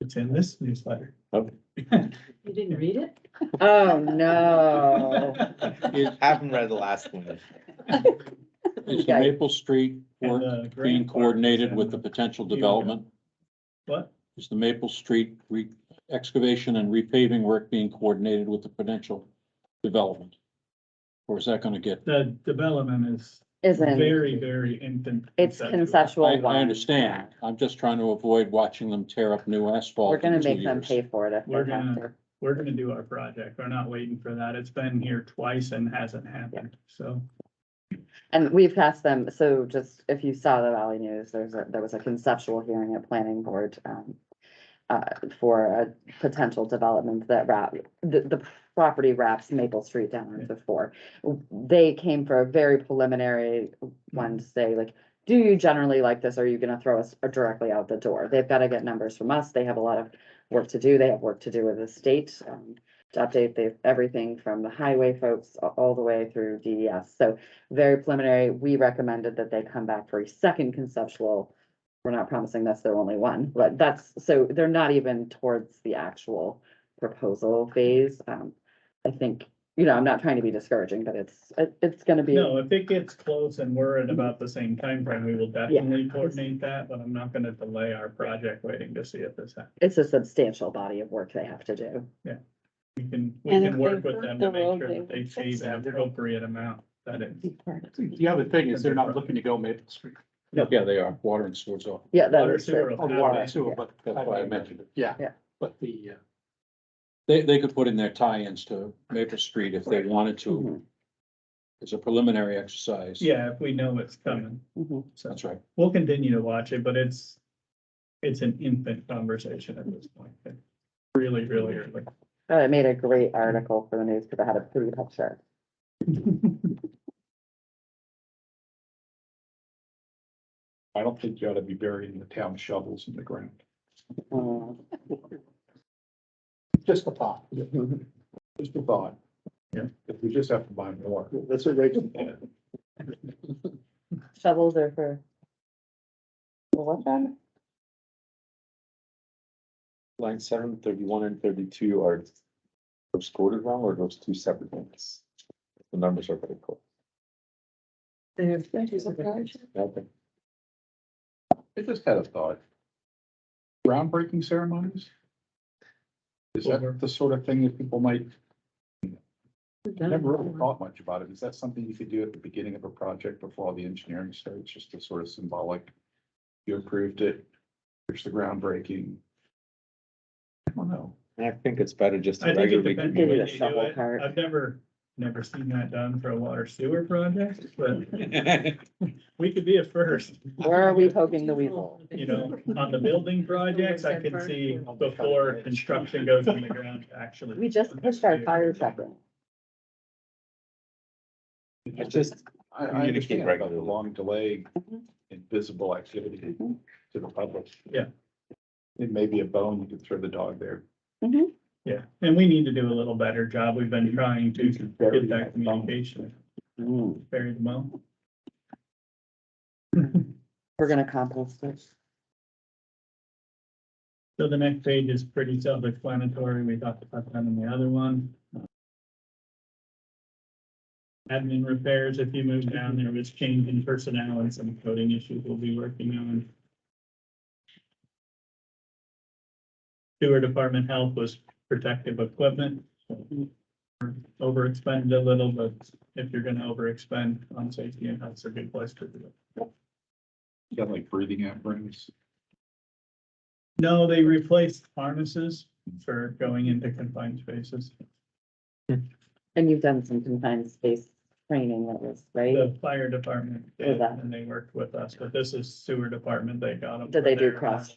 It's in this newsletter. You didn't read it? Oh, Oh. no. uh, Is, Haven't read the last one. is the Maple Street And, work uh, being grant coordinated with the and- potential development? What? Is the Maple Street re, excavation and repaving work being coordinated with the potential development? Or is that gonna get, The development is Isn't, very, very infant. it's I, conceptual I one. understand. I'm just trying to avoid watching them tear up new asphalt. We're gonna in two make them years. pay for it if We're they have to. We're gonna do our project. We're not waiting for that. It's been here twice and hasn't happened, so. And we've asked them, so just if you saw the Valley News, there's a, there was a conceptual hearing at planning board, um, uh, for a potential development that wrap, the, the property wraps Maple Street down into four. They came for a very preliminary one to say like, do you generally like this? Are you gonna throw us directly out the door? They've gotta get numbers from us. They have a lot of work to do. They have work to do with the state, um, to update the, everything from the highway folks a- all the way through DES. So very preliminary, we recommended that they come back for a second conceptual. We're not promising that's their only one, but that's, so they're not even towards the actual proposal phase. Um, I think, you know, I'm not trying to be discouraging, but it's, it- it's gonna be. No, if it gets close and we're at about the same time frame, we will definitely coordinate that, but I'm not gonna delay our project waiting to see if this happens. it's a substantial body of work they have to do. We can, we And can if work they with them hurt to the make road, sure they that they will see fix the it. appropriate amount that it. The other thing is they're not looking to go Maple Street, Yeah, they are. Water and sewer's off. Yeah, that Water is sewer. true. will or have water it. sewer, but. That's why I mentioned it. Yeah. Yeah. But the, uh, They, they could put in their tie-ins to Maple Street if they wanted to. Mhm. It's a preliminary exercise. Yeah, if we know it's coming, Mhm. so That's right. we'll continue to watch it, but it's, it's an infant conversation at this point. It's Really, really early. Oh, I made a great article for the news because I had a pretty picture. I don't think you ought to be burying the town shovels in the ground. Mm. Just a thought. Just a thought. Yeah. If we just have to buy more. That's a regular. Shovels are for. Well, What's that? Line seven, thirty-one and thirty-two are those quoted wrong or those two separate ones? The numbers are pretty cool. There's. Okay. I just had a thought. Groundbreaking ceremonies? Is that the sort of thing that people might, never really thought much about it. Is that something you could do at the beginning of a project before all the engineering starts, just a sort of symbolic? You approved it, here's the groundbreaking. I don't know. I think it's better just I to think it regularly. depends. Maybe on the what you do shovel it. part. I've never, never seen that done for a water sewer project, but we could be a first. Where are we poking the weasel? you know, on the building projects, I can see before construction goes on the ground, actually. We just pushed our fire truck. It's just, I, I Communicate understand about the regularly. long delay, Mhm. invisible activity Mhm. to the public. Yeah. It may be a bone you could throw the dog there. Yeah, and we need to do a little better job. We've been trying to get that communication buried well. We're gonna compost this. So the next page is pretty self-explanatory. We talked about that in the other one. Admin repairs, if you move down, there was change in personnel and some coding issues we'll be working on. Sewer department health was protective equipment. Over expended a little, but if you're gonna over expend on safety and health's a good place to do it. You got like breathing apparatus. No, they replaced harnesses for going into confined spaces. And you've done some confined space training that was, right? The fire department did, and they worked with us, but this is sewer department, they got them. Did they do cross?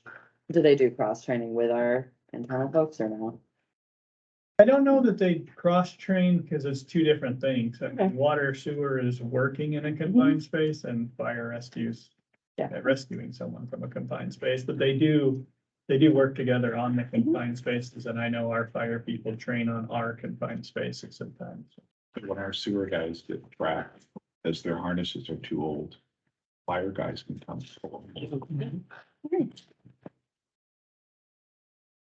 Do they do cross training with our internal folks or no? I don't know that they cross-train, because it's two different things. I mean, Okay. Mm-hmm. water sewer is working in a confined space and fire rescues. Yeah. uh, Rescuing someone from a confined space, but they do, they do work together on the Mm-hmm. confined spaces, and I know our fire people train on our confined spaces sometimes. When our sewer guys get trapped, as their harnesses are too old, fire guys can come. Great.